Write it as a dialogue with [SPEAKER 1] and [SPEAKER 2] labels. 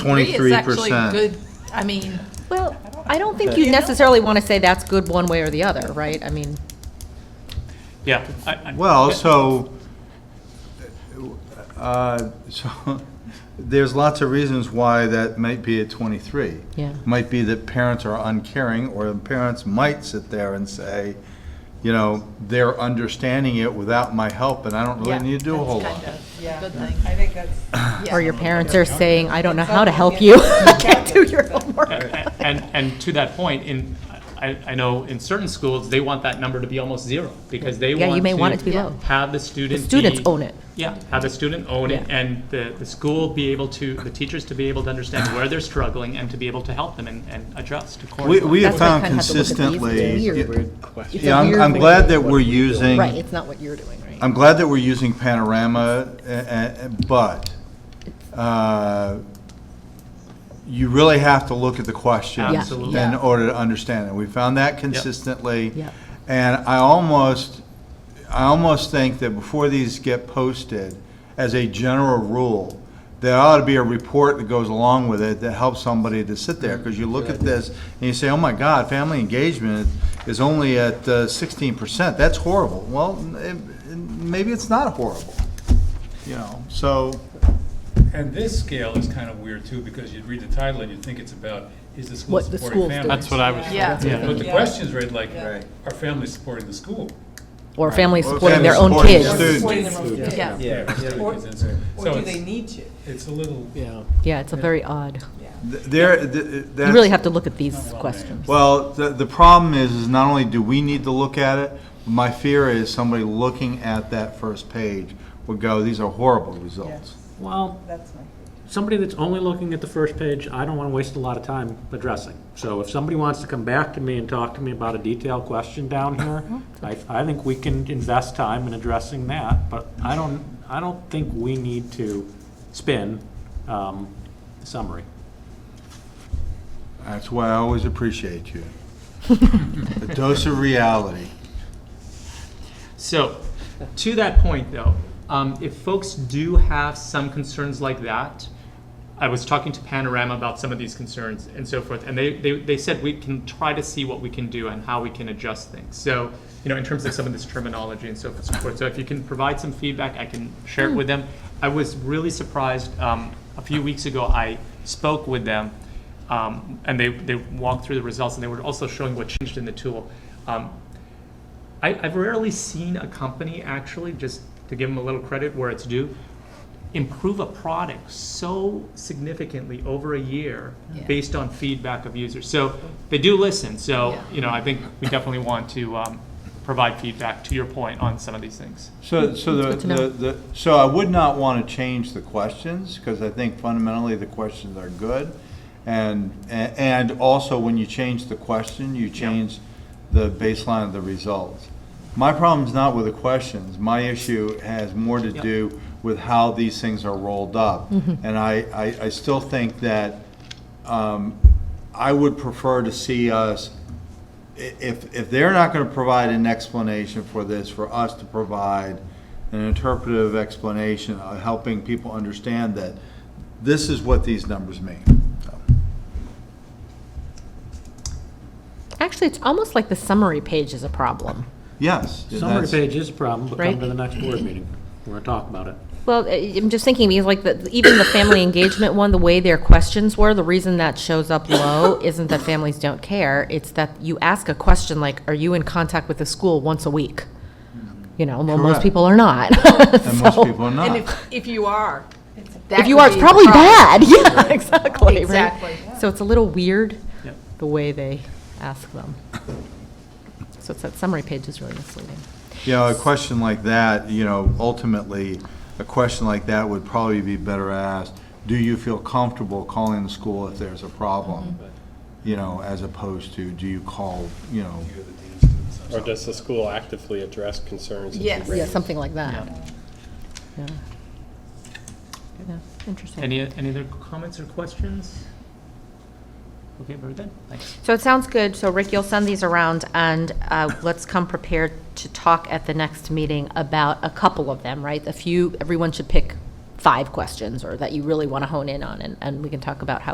[SPEAKER 1] Three is
[SPEAKER 2] Twenty-three
[SPEAKER 1] actually
[SPEAKER 2] percent.
[SPEAKER 1] good, I mean,
[SPEAKER 3] Well, I don't think you necessarily want to say that's good one way or the other, right? I mean,
[SPEAKER 4] Yeah. I- I-
[SPEAKER 2] Well, so, uh, so, there's lots of reasons why that might be at twenty-three.
[SPEAKER 3] Yeah.
[SPEAKER 2] Might be that parents are uncaring, or the parents might sit there and say, you know, they're understanding it without my help, and I don't really need to do a whole lot.
[SPEAKER 1] kind of a
[SPEAKER 5] Yeah,
[SPEAKER 1] good thing.
[SPEAKER 5] I think that's.
[SPEAKER 3] or your parents are saying, I don't know how to help
[SPEAKER 5] Exactly.
[SPEAKER 3] you.
[SPEAKER 5] Yeah.
[SPEAKER 3] Can't do your homework.
[SPEAKER 4] a- And, and to that point, in, I, I know in certain schools, they want that number to be almost zero, because they want
[SPEAKER 3] Yeah,
[SPEAKER 4] to.
[SPEAKER 3] you may want it to be low.
[SPEAKER 4] Have the student
[SPEAKER 3] students
[SPEAKER 4] be-
[SPEAKER 3] own it.
[SPEAKER 4] Yeah, have the student own it,
[SPEAKER 3] Yeah.
[SPEAKER 4] and the, the school be able to, the teachers to be able to understand where they're struggling, and to be able to help them and, and adjust
[SPEAKER 2] We,
[SPEAKER 4] accordingly.
[SPEAKER 2] we have
[SPEAKER 3] That's why I
[SPEAKER 2] found
[SPEAKER 3] kinda have to look at these. It's
[SPEAKER 2] consistently.
[SPEAKER 3] weird. It's a
[SPEAKER 2] Yeah, I'm,
[SPEAKER 3] weird
[SPEAKER 2] I'm
[SPEAKER 3] way.
[SPEAKER 2] glad that we're using.
[SPEAKER 3] Right, it's not what you're doing, right?
[SPEAKER 2] I'm glad that we're using Panorama, a- a- a- but uh, you really have to look at the question
[SPEAKER 4] Yeah. Absolutely.
[SPEAKER 2] in order to understand it. We found that consistently.
[SPEAKER 3] Yep.
[SPEAKER 2] And I almost, I almost think that before these get posted, as a general rule, there ought to be a report that goes along with it that helps somebody to sit there. Because you look at this and you say, oh my God, family engagement is only at uh, sixteen percent. That's horrible. Well, it- it- maybe it's not horrible, you know, so.
[SPEAKER 6] And this scale is kind of weird too, because you'd read the title and you'd think it's about, is the school
[SPEAKER 3] What the
[SPEAKER 6] supporting
[SPEAKER 3] school's doing.
[SPEAKER 6] families?
[SPEAKER 7] That's what I was,
[SPEAKER 1] Yeah.
[SPEAKER 6] But the
[SPEAKER 5] Yeah.
[SPEAKER 6] question's read like,
[SPEAKER 2] Right.
[SPEAKER 6] are families supporting the school?
[SPEAKER 3] Or families
[SPEAKER 2] Or
[SPEAKER 3] supporting their
[SPEAKER 2] families
[SPEAKER 3] own
[SPEAKER 2] supporting
[SPEAKER 3] kids.
[SPEAKER 2] students.
[SPEAKER 5] Supporting their own kids.
[SPEAKER 1] Yeah.
[SPEAKER 6] Yeah. it's doing
[SPEAKER 5] Or-
[SPEAKER 6] kids inside.
[SPEAKER 5] Or
[SPEAKER 6] So
[SPEAKER 5] do
[SPEAKER 6] it's-
[SPEAKER 5] they need to?
[SPEAKER 6] It's a little,
[SPEAKER 7] yeah.
[SPEAKER 3] Yeah, it's a very odd.
[SPEAKER 2] th- There, th- that's.
[SPEAKER 3] You really have to look at these questions.
[SPEAKER 2] Well, the, the problem is, is not only do we need to look at it, my fear is somebody looking at that first page would go, these are horrible results.
[SPEAKER 8] Well,
[SPEAKER 5] That's my.
[SPEAKER 8] somebody that's only looking at the first page, I don't want to waste a lot of time addressing. So if somebody wants to come back to me and talk to me about a detailed question down here, I, I think we can invest time in addressing that, but I don't, I don't think we need to spin um, the summary.
[SPEAKER 2] That's why I always appreciate you. A dose of reality.
[SPEAKER 4] So, to that point though, um, if folks do have some concerns like that, I was talking to Panorama about some of these concerns and so forth, and they, they, they said we can try to see what we can do and how we can adjust things. So, you know, in terms of some of this terminology and so forth, so forth. So if you can provide some feedback, I can share it with them. I was really surprised, um, a few weeks ago, I spoke with them, um, and they, they walked through the results, and they were also showing what changed in the tool. Um, I, I've rarely seen a company actually, just to give them a little credit where it's due, improve a product so significantly over a year
[SPEAKER 1] Yeah.
[SPEAKER 4] based on feedback of users. So they do listen. So,
[SPEAKER 1] Yeah.
[SPEAKER 4] you know, I think we definitely want to um, provide feedback to your point on some of these things.
[SPEAKER 2] So, so the,
[SPEAKER 3] Hmm, Good to know.
[SPEAKER 2] the, the- so I would not want to change the questions, because I think fundamentally the questions are good. And, a- and also when you change the question, you change the baseline of the results. My problem's not with the questions, my issue has more to
[SPEAKER 4] Yeah.
[SPEAKER 2] do with how these things are rolled up. And I, I, I still think that, um, I would prefer to see us i- if, if they're not gonna provide an explanation for this, for us to provide an interpretive explanation, uh, helping people understand that this is what these numbers mean.
[SPEAKER 3] Actually, it's almost like the summary page is a problem.
[SPEAKER 2] Yes. and
[SPEAKER 8] Summary
[SPEAKER 2] that's-
[SPEAKER 8] page is a problem, but come to
[SPEAKER 3] Right.
[SPEAKER 8] the next board meeting. We're going to talk about it.
[SPEAKER 3] Well, I- I'm just thinking, because like, the- even the family engagement one, the way their questions were, the reason that shows up low isn't that families don't care, it's that you ask a question like, are you in contact with the school once a week? You know, well,
[SPEAKER 2] Correct.
[SPEAKER 3] most people are not.
[SPEAKER 2] And most
[SPEAKER 3] So,
[SPEAKER 2] people are
[SPEAKER 1] And
[SPEAKER 2] not.
[SPEAKER 1] if, if you are, that
[SPEAKER 3] If you
[SPEAKER 1] could
[SPEAKER 3] are, it's
[SPEAKER 1] be the
[SPEAKER 3] probably
[SPEAKER 1] problem.
[SPEAKER 3] bad, yeah, exactly, right?
[SPEAKER 1] Exactly.
[SPEAKER 3] So it's a little weird,
[SPEAKER 4] Yep.
[SPEAKER 3] the way they ask them. So it's that summary page is really misleading.
[SPEAKER 2] You know, a question like that, you know, ultimately, a question like that would probably be better asked, do you feel comfortable calling the school if there's a problem? You know, as opposed to, do you call, you know,
[SPEAKER 7] Or does the school actively address concerns? that you
[SPEAKER 1] Yes.
[SPEAKER 7] raise?
[SPEAKER 3] Yeah, something like
[SPEAKER 1] Uh,
[SPEAKER 3] that. Yeah. Yeah, Interesting.
[SPEAKER 4] Any, any other comments or questions? Okay, very good. Thanks.
[SPEAKER 3] So it sounds good. So Rick, you'll send these around and uh, let's come prepared to talk at the next meeting about a couple of them, right? A few, everyone should pick five questions or that you really want to hone in on, and, and we can talk about how